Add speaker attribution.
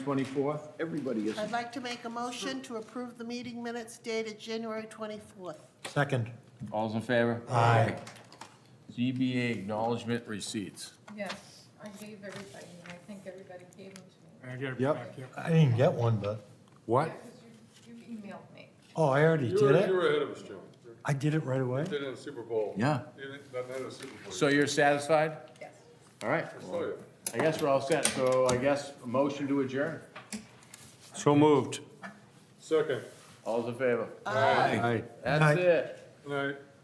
Speaker 1: 24th? Everybody is.
Speaker 2: I'd like to make a motion to approve the meeting minutes dated January 24th.
Speaker 3: Second.
Speaker 4: All's in favor? Aye. ZBA acknowledgement receipts.
Speaker 5: Yes, I gave everybody, and I think everybody gave them to me.
Speaker 6: I get it
Speaker 1: Yep.
Speaker 6: back, yep.
Speaker 3: I didn't get one, but,
Speaker 4: What?
Speaker 5: Because you, you emailed me.
Speaker 3: oh, I already
Speaker 7: You
Speaker 3: did
Speaker 7: were, you
Speaker 3: it?
Speaker 7: were ahead of us, Jim. You
Speaker 3: I did it right away?
Speaker 7: did it in the Super Bowl.
Speaker 4: Yeah.
Speaker 7: You didn't, not in the Super Bowl.
Speaker 4: So you're satisfied?
Speaker 5: Yes.
Speaker 4: All right.
Speaker 7: I saw you.
Speaker 4: I guess we're all set. So I guess a motion to adjourn.
Speaker 6: So moved.
Speaker 7: Oh, Second,
Speaker 4: All's in favor?
Speaker 1: Aye.
Speaker 4: That's
Speaker 3: Aye.
Speaker 4: it.
Speaker 7: night.